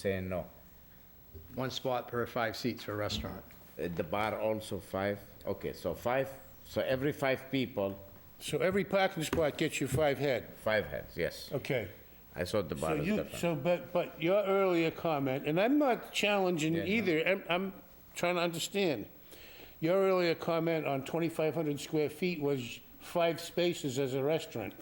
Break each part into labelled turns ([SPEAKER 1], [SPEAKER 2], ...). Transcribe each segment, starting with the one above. [SPEAKER 1] saying no.
[SPEAKER 2] One spot per five seats for a restaurant.
[SPEAKER 1] At Uh, the bar also five? Okay, so five, so every five people,
[SPEAKER 3] So every parking spot gets you five head.
[SPEAKER 1] five heads, yes.
[SPEAKER 3] Okay.
[SPEAKER 1] I saw the
[SPEAKER 3] So
[SPEAKER 1] bar is
[SPEAKER 3] you,
[SPEAKER 1] different.
[SPEAKER 3] so, but, but your earlier comment, and I'm not challenging
[SPEAKER 1] Yeah, no.
[SPEAKER 3] either, I'm, I'm trying to understand. Your earlier comment on 2,500 square feet was five spaces as a restaurant.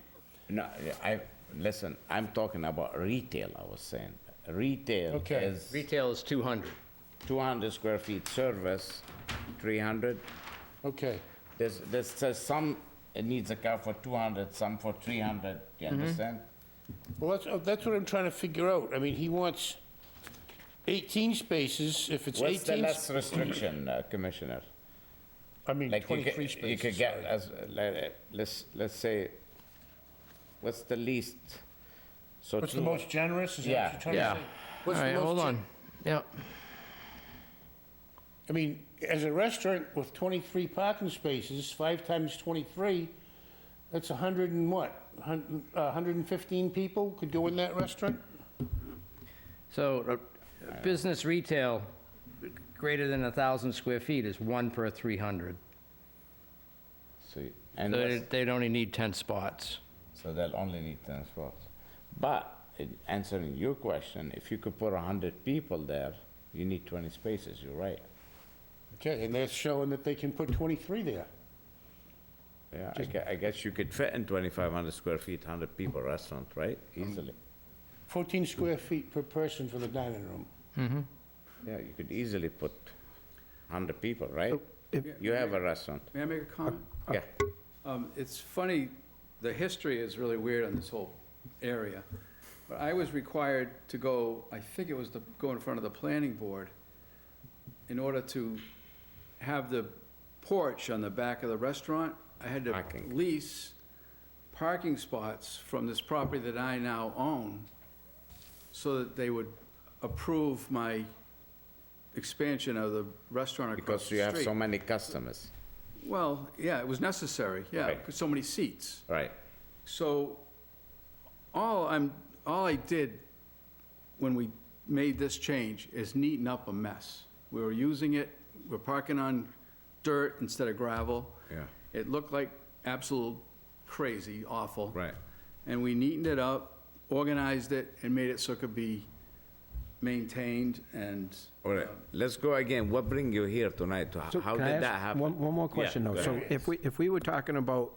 [SPEAKER 1] No, I, listen, I'm talking about retail, I was saying. Retail
[SPEAKER 3] Okay.
[SPEAKER 1] is
[SPEAKER 2] Retail is 200.
[SPEAKER 1] 200 square feet service, 300.
[SPEAKER 3] Okay,
[SPEAKER 1] There's, there's, there's some, it needs a car for 200, some for 300,
[SPEAKER 3] Mm-hmm.
[SPEAKER 1] you understand?
[SPEAKER 3] well, that's, oh, that's what I'm trying to figure out. I mean, he wants 18 spaces, if it's
[SPEAKER 1] What's the
[SPEAKER 3] 18,
[SPEAKER 1] last restriction, uh, Commissioner?
[SPEAKER 3] I mean,
[SPEAKER 1] Like you
[SPEAKER 3] 23
[SPEAKER 1] could, you could
[SPEAKER 3] spaces.
[SPEAKER 1] get, as, like, uh, let's, let's say, what's the least? So
[SPEAKER 3] What's the
[SPEAKER 1] two-
[SPEAKER 3] most generous, is that
[SPEAKER 1] Yeah,
[SPEAKER 3] what you're trying to say?
[SPEAKER 1] yeah.
[SPEAKER 2] All
[SPEAKER 3] What's the
[SPEAKER 2] right,
[SPEAKER 3] most
[SPEAKER 2] hold
[SPEAKER 3] gen-
[SPEAKER 2] on. Yeah.
[SPEAKER 3] I mean, as a restaurant with 23 parking spaces, five times 23, that's 100 and what? Hun- uh, 115 people could go in that restaurant?
[SPEAKER 2] So uh, business retail greater than 1,000 square feet is one per 300.
[SPEAKER 1] So you- And
[SPEAKER 2] So
[SPEAKER 1] what's-
[SPEAKER 2] they- They'd only need 10 spots.
[SPEAKER 1] So they'll only need 10 spots. But in answering your question, if you could put 100 people there, you need 20 spaces, you're right.
[SPEAKER 3] Okay, and that's showing that they can put 23 there.
[SPEAKER 1] Yeah, I gue- I guess you could fit in 2,500 square feet, 100 people restaurant, right?
[SPEAKER 3] Um,
[SPEAKER 1] Easily.
[SPEAKER 3] 14 square feet per person for the dining room.
[SPEAKER 1] Yeah, you could easily put 100 people, right? You have a restaurant.
[SPEAKER 4] May I make a comment?
[SPEAKER 3] Uh,
[SPEAKER 1] Yeah,
[SPEAKER 4] Um, It's funny, the history is really weird on this whole area. But I was required to go, I think it was to go in front of the planning board in order to have the porch on the back of the restaurant. I had to
[SPEAKER 1] Parking.
[SPEAKER 4] lease parking spots from this property that I now own so that they would approve my expansion of the restaurant across the
[SPEAKER 1] because
[SPEAKER 4] street.
[SPEAKER 1] you have so many customers,
[SPEAKER 4] Well, yeah, it was necessary, yeah,
[SPEAKER 1] Right.
[SPEAKER 4] because so many seats.
[SPEAKER 1] right?
[SPEAKER 4] So, all I'm, all I did when we made this change is neaten up a mess. We were using it, we're parking on dirt instead of gravel.
[SPEAKER 1] Yeah.
[SPEAKER 4] It looked like absolute crazy, awful.
[SPEAKER 1] Right.
[SPEAKER 4] And we neatened it up, organized it, and made it so it could be maintained and.
[SPEAKER 1] All right, let's go again. What bring you here tonight? To-
[SPEAKER 5] So
[SPEAKER 1] How
[SPEAKER 5] can I
[SPEAKER 1] did
[SPEAKER 5] ask
[SPEAKER 1] that happen?
[SPEAKER 5] One, one more
[SPEAKER 1] Yeah,
[SPEAKER 5] question, though.
[SPEAKER 1] go
[SPEAKER 5] So
[SPEAKER 1] ahead.
[SPEAKER 5] if we, if we were talking about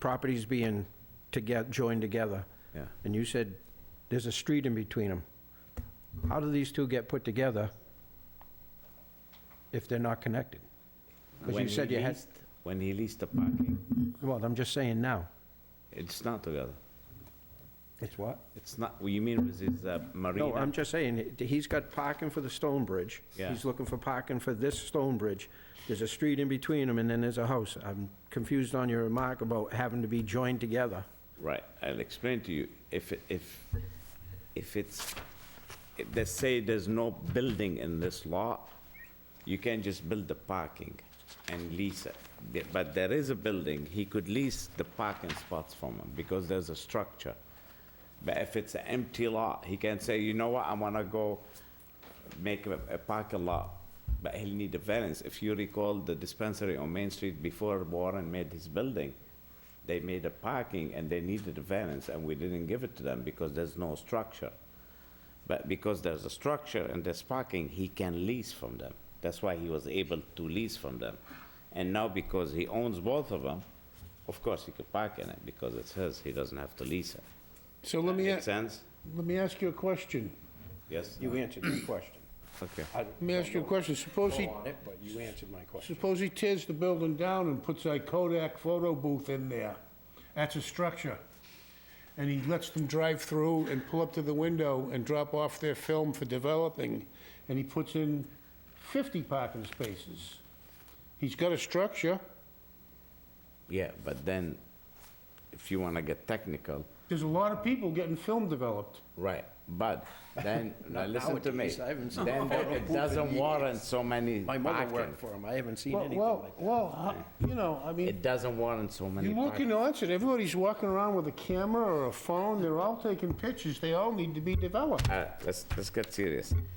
[SPEAKER 5] properties being together, joined together,
[SPEAKER 1] Yeah.
[SPEAKER 5] and you said there's a street in between them, how do these two get put together if they're not connected? Because
[SPEAKER 1] When
[SPEAKER 5] you
[SPEAKER 1] he
[SPEAKER 5] said you had,
[SPEAKER 1] leased- When he leased the parking,
[SPEAKER 5] well, I'm just saying now.
[SPEAKER 1] it's not together.
[SPEAKER 5] It's what?
[SPEAKER 1] It's not, what you mean with his uh, marina?
[SPEAKER 5] No, I'm just saying, he- he's got parking for the stone bridge.
[SPEAKER 1] Yeah.
[SPEAKER 5] He's looking for parking for this stone bridge. There's a street in between them, and then there's a house. I'm confused on your remark about having to be joined together.
[SPEAKER 1] Right, I'll explain to you. If, it- if, if it's, if they say there's no building in this lot, you can just build the parking and lease it. The- But there is a building, he could lease the parking spots from him because there's a structure. But if it's an empty lot, he can say, you know what, I wanna go make a, a parking lot, but he'll need a variance. If you recall the dispensary on Main Street before Warren made his building, they made a parking and they needed a variance and we didn't give it to them because there's no structure. But because there's a structure and there's parking, he can lease from them. That's why he was able to lease from them. And now because he owns both of them, of course he could park in it because it's his, he doesn't have to lease it.
[SPEAKER 3] So let me, a-
[SPEAKER 1] Make sense?
[SPEAKER 3] let me ask you a question.
[SPEAKER 1] Yes?
[SPEAKER 5] You answered my question.
[SPEAKER 1] Okay.
[SPEAKER 3] Let me ask you a question. Suppose he,
[SPEAKER 5] on it, but you answered my question.
[SPEAKER 3] suppose he tears the building down and puts a Kodak photo booth in there. That's a structure. And he lets them drive through and pull up to the window and drop off their film for developing. And he puts in 50 parking spaces. He's got a structure.
[SPEAKER 1] Yeah, but then, if you wanna get technical,
[SPEAKER 3] There's a lot of people getting film developed.
[SPEAKER 1] Right, but then, now listen to me.
[SPEAKER 5] Nowadays, I haven't seen
[SPEAKER 1] Then
[SPEAKER 5] photo
[SPEAKER 1] it- it
[SPEAKER 5] booth in
[SPEAKER 1] doesn't
[SPEAKER 5] years.
[SPEAKER 1] warrant so many
[SPEAKER 5] My mother worked
[SPEAKER 1] parking.
[SPEAKER 5] for him, I haven't seen
[SPEAKER 3] Well,
[SPEAKER 5] anything
[SPEAKER 3] well,
[SPEAKER 5] like that.
[SPEAKER 3] well, I- you know, I mean,
[SPEAKER 1] It doesn't warrant so many
[SPEAKER 3] you look in
[SPEAKER 1] parking.
[SPEAKER 3] Onset, everybody's walking around with a camera or a phone, they're all taking pictures, they all need to be developed.
[SPEAKER 1] All right, Uh, let's, let's get serious.